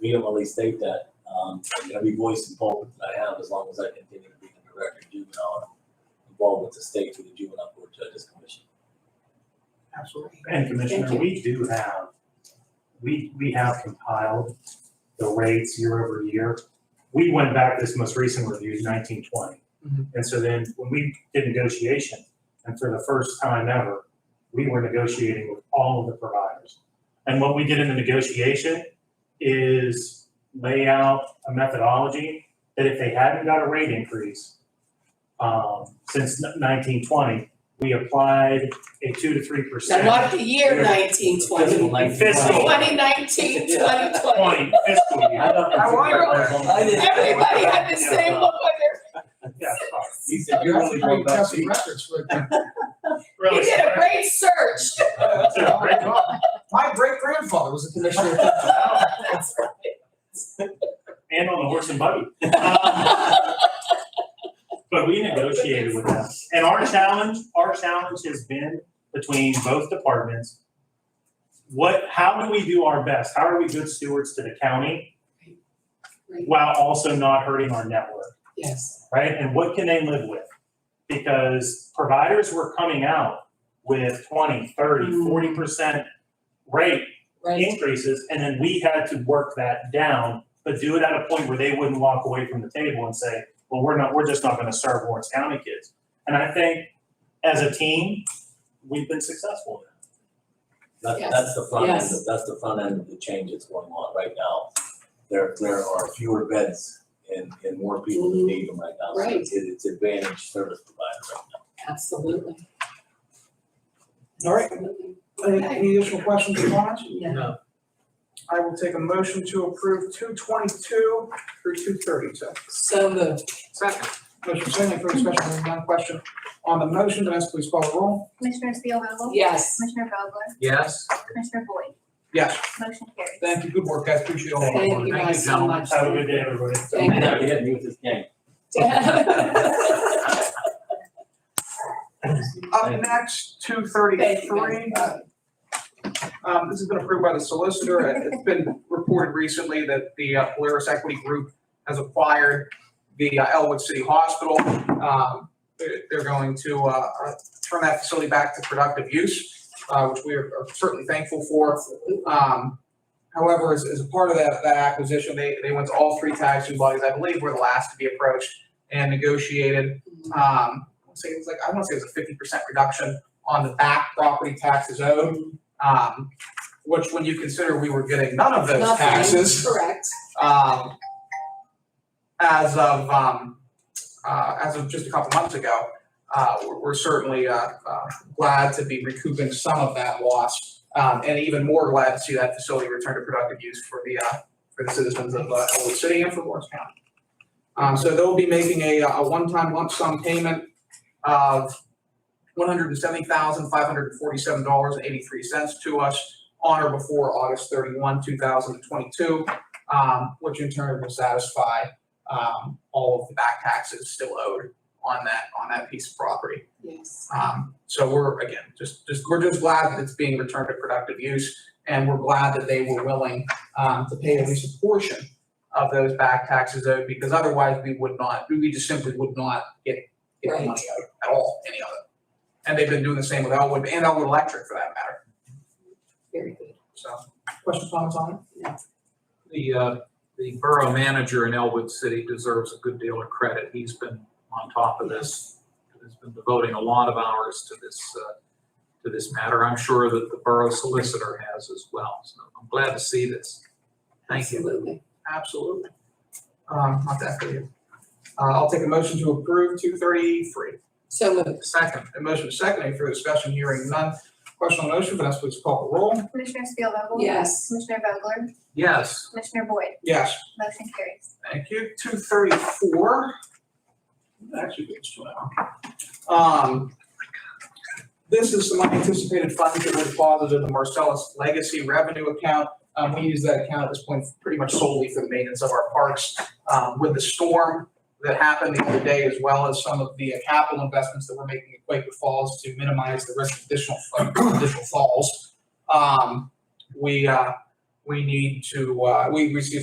vehemently state that. Um, I'm gonna be voicing pulpit that I have as long as I continue to be the director of juvenile involved with the state through the juvenile court judges commission. Absolutely. And Commissioner, Thank we do have, we, we have compiled the rates year over year. We went back, this most recent review is nineteen twenty. Mhm. And so then when we did negotiation, and for the first time ever, we were negotiating with all of the providers. And what we did in the negotiation is lay out a methodology that if they hadn't got a rate increase, um, since nineteen twenty, we applied a two to three percent. So not the year nineteen twenty, Fiscal. twenty nineteen, twenty Twenty twenty. fiscal year. I don't I wonder- consider- I didn't- Everybody had the same look on Yeah, He said, you're really going back to. their, you really. did a great search. My great grandfather was a commissioner. And on the horse and buggy. Um, But we negotiated with them. And our challenge, our challenge has been between both departments. What, how do we do our best? How are we good stewards to the county while also not hurting our network? Yes, right? And what can they live with? Because providers were coming out with 20, 30, Mm. 40% rate right, increases, and then we had to work that down, but do it at a point where they wouldn't walk away from the table and say, well, we're not, we're just not gonna serve Lawrence County kids. And I think as a team, we've been successful. That's, Yes. that's the front end, Yes. that's the front end of the change that's going on right now. There, there are fewer beds and, and more people that need them right now. So Mm-hmm. Right. It's, it's advantage service provider right now. absolutely. All right. Absolutely. Any, any additional questions or comments? Yeah. No. I will take a motion to approve two twenty-two through two thirty-two. So moved. Second. Motion second, any further discussion, hearing none, question on the motion, Vanessa, please call the roll. Commissioner Spielvogel? Yes. Commissioner Vogler? Yes. Commissioner Boyd? Yes. Motion carries. Thank you, good work, guys, appreciate all of Thank you it. guys so much. Have a good day, everybody. Thank you. We had to use this game. Up next, two thirty-three. Um, this has been approved by the solicitor, and it's been reported recently that the uh, Polaris Equity Group has acquired the uh, Elwood City Hospital. Um, they're, they're going to, uh, uh, turn that facility back to productive use, uh, which we are are certainly thankful for. Um, however, as, as a part of that, that acquisition, they, they went to all three taxing bodies, I believe were the last to be approached and negotiated. Um, I'll say it was like, I wanna say it was a fifty percent reduction on the back property taxes owed. Um, which when you consider we were getting none of those Nothing. taxes, Correct. um, as of, um, uh, as of just a couple months ago, uh, we're, we're certainly, uh, uh, glad to be recouping some of that loss. Um, and even more glad to see that facility return to productive use for the, uh, for the citizens of, uh, Elwood City and for Lawrence County. Um, so they'll be making a, a one-time lump sum payment of one hundred and seventy thousand, five hundred and forty-seven dollars and eighty-three cents to us on or before August thirty-one, two thousand and twenty-two um, which in turn will satisfy, um, all of the back taxes still owed on that, on that piece of property. Yes. Um, so we're, again, just, just, we're just glad that it's being returned to productive use, and we're glad that they were willing, um, to pay at least a portion of those back taxes owed, because otherwise we would not, we just simply would not get, get the money out at all, any of it. And they've been doing the same with Elwood, and Elwood Electric for that matter, Very good. so, questions, comments on it? The, uh, the borough manager in Elwood City deserves a good deal of credit. He's been on top of this. Has been devoting a lot of hours to this, uh, to this matter. I'm sure that the borough solicitor has as well. So I'm glad to see this. Thank you. Absolutely. Absolutely. Um, not that for you. Uh, I'll take a motion to approve two thirty-three. So moved. Second. A motion is second, any further discussion, hearing none. Question on the motion, Vanessa, please call the roll. Commissioner Spielvogel? Yes. Commissioner Vogler? Yes. Commissioner Boyd? Yes. Motion carries. Thank you. Two thirty-four. Actually, it's two hours. Um, this is some unanticipated funds that were deposited in the Marcellus Legacy Revenue Account. Um, we use that account at this point pretty much solely for the maintenance of our parks. Um, with the storm that happened the other day, as well as some of the capital investments that we're making at Quaker Falls to minimize the risk of additional, of additional falls. Um, we, uh, we need to, uh, we received